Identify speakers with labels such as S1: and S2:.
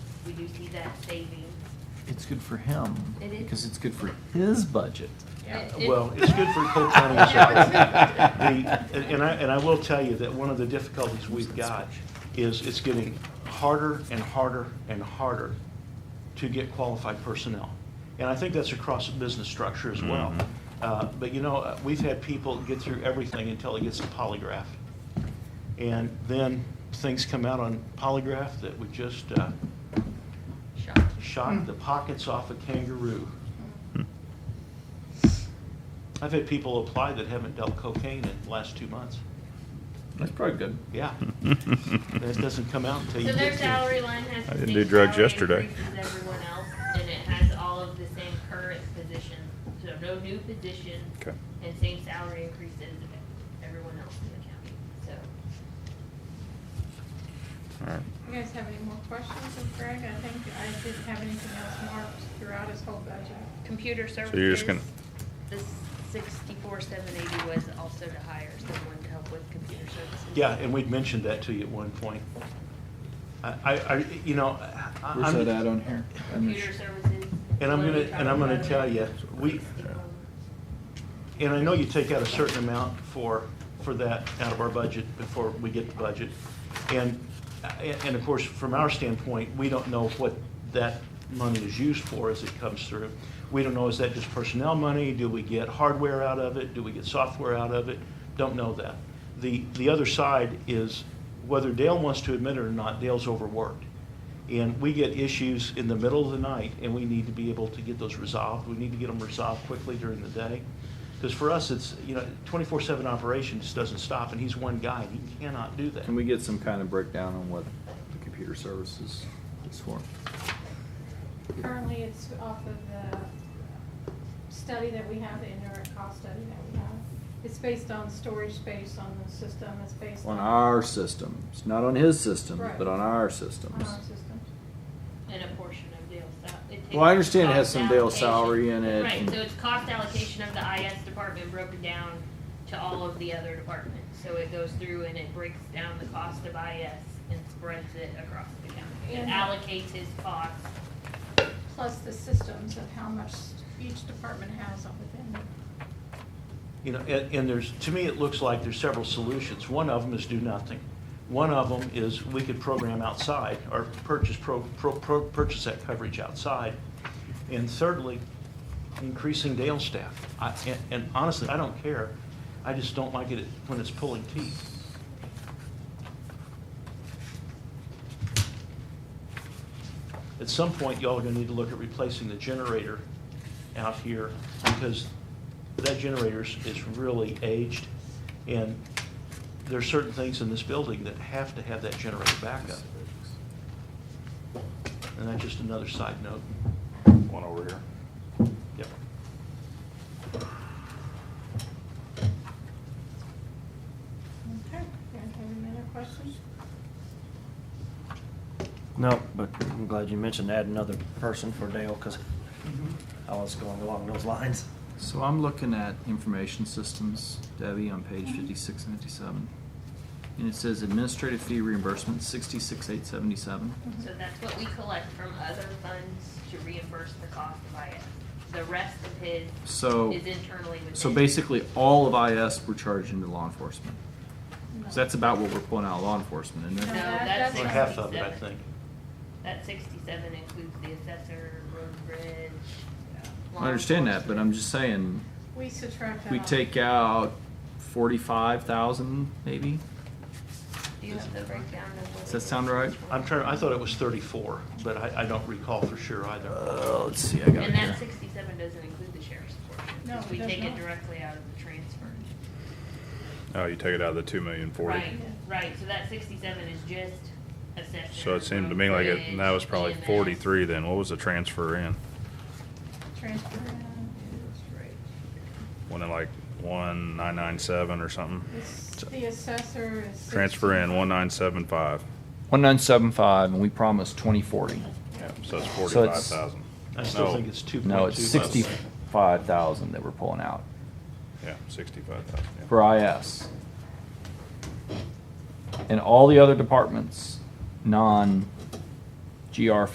S1: we do see that savings.
S2: It's good for him,
S1: It is.
S2: because it's good for his budget.
S1: It- it-
S3: Well, it's good for Cole County as well. The- And and I, and I will tell you that one of the difficulties we've got is it's getting harder and harder and harder to get qualified personnel. And I think that's across the business structure as well.
S4: Mhm.
S3: Uh, But you know, uh, we've had people get through everything until it gets to polygraph. And then things come out on polygraph that would just uh,
S1: Shock.
S3: shock the pockets off a kangaroo. I've had people apply that haven't dealt cocaine in the last two months.
S2: That's probably good.
S3: Yeah, that doesn't come out until you
S1: So their
S3: get
S1: salary
S3: to.
S1: line has
S4: I
S1: the
S4: didn't
S1: same
S4: do drugs
S1: salary
S4: yesterday.
S1: increase as everyone else, and it has all of the same current positions, so no new positions.
S4: Okay.
S1: And same salary increases as everyone else in the county, so.
S4: All right.
S5: You guys have any more questions of Greg? I think I didn't have anything else marked throughout his whole budget.
S1: Computer services.
S4: So you're just gonna-
S1: The sixty-four, seven eighty was also to hire someone to help with computer services.
S3: Yeah, and we'd mentioned that to you at one point. I, I, I- you know, I-
S2: Where's that at
S3: I'm,
S2: on here? I'm not
S1: Computer
S2: sure.
S1: services.
S3: And I'm
S1: what are we
S3: gonna- and
S1: talking
S3: I'm gonna
S1: about?
S3: tell ya, we-
S1: 64.
S3: and I know you take out a certain amount for, for that out of our budget before we get the budget. And, and of course, from our standpoint, we don't know what that money is used for as it comes through. We don't know, is that just personnel money? Do we get hardware out of it? Do we get software out of it? Don't know that. The, the other side is whether Dale wants to admit it or not, Dale's overworked. And we get issues in the middle of the night, and we need to be able to get those resolved. We need to get them resolved quickly during the day. Because for us, it's, you know, twenty-four seven operations doesn't stop, and he's one guy, and he cannot do that.
S2: Can we get some kind of breakdown on what the computer services is for?
S5: Currently, it's off of the study that we have, the indirect cost study that we have. It's based on storage space on the system, it's based on.
S2: On our systems, not on his systems,
S5: Right.
S2: but on our
S5: On
S2: systems.
S5: our systems.
S1: And a portion of Dale's salary.
S2: Well, I understand it has some Dale's salary in it
S1: Right,
S2: and-
S1: so it's cost allocation of the IS department broken down to all of the other departments. So it goes through and it breaks down the cost of IS and spreads it across the county. It
S5: And-
S1: allocates his costs.
S5: Plus the systems of how much each department has on within it.
S3: You know, and, and there's, to me, it looks like there's several solutions. One of them is do nothing. One of them is we could program outside or purchase, pro, pro, pro, purchase that coverage outside. And thirdly, increasing Dale staff. I, and, and honestly, I don't care. I just don't like it when it's pulling teeth. At some point, y'all are gonna need to look at replacing the generator out here because that generator is- is really aged. And there are certain things in this building that have to have that generator backup. And that's just another side note.
S4: One over here.
S3: Yep.
S5: Okay, you guys have any other questions?
S6: No, but I'm glad you mentioned add another person for Dale, because I was going along those lines.
S2: So I'm looking at information systems, Debbie, on page fifty-six and fifty-seven. And it says administrative fee reimbursement, sixty-six, eight seventy-seven.
S1: So
S5: Mm-hmm.
S1: that's what we collect from other funds to reimburse the cost of IS. The rest of his
S2: So-
S1: is internally within.
S2: So basically, all of IS we're charging to law enforcement. So that's about what we're pulling out of law enforcement,
S1: No,
S2: isn't it?
S5: that-
S1: that's
S3: Or
S5: that's-
S3: half of it, I
S1: 67.
S3: think.
S1: That sixty-seven includes the assessor, road bridge. uh,
S2: I understand that, but I'm just saying,
S5: We subtract that
S2: we
S5: off.
S2: take out forty-five thousand, maybe?
S1: Do you have the breakdown of what?
S2: Does
S1: it
S2: that
S1: is
S2: sound right?
S1: each one?
S3: I'm trying, I thought it was 34, but I, I don't recall for sure either.
S2: Uh, let's see, I got it
S1: And that
S2: here.
S1: sixty-seven doesn't include the sheriff's portion,
S5: No,
S1: because we
S5: it does
S1: take it
S5: not.
S1: directly out of the transfer.
S4: Oh, you take it out of the two million forty.
S1: Right, right, so that sixty-seven is just assessor.
S4: So it seemed to me like it, and that was probably
S1: bridge, EMS.
S4: forty-three then. What was the transfer in?
S5: Transfer in.
S4: Went in like one nine nine seven or something?
S5: It's- The assessor is.
S4: Um, Transfer in
S5: 16.
S4: one nine seven five.
S2: One nine seven five, and we promised twenty forty.
S4: Yeah, so it's
S2: So
S4: forty-five
S2: it's-
S4: thousand.
S3: I still think it's 2.2.
S2: No, it's sixty-five thousand that we're pulling out
S4: Yeah, sixty-five thousand, yeah.
S2: for IS. And all the other departments, non-GR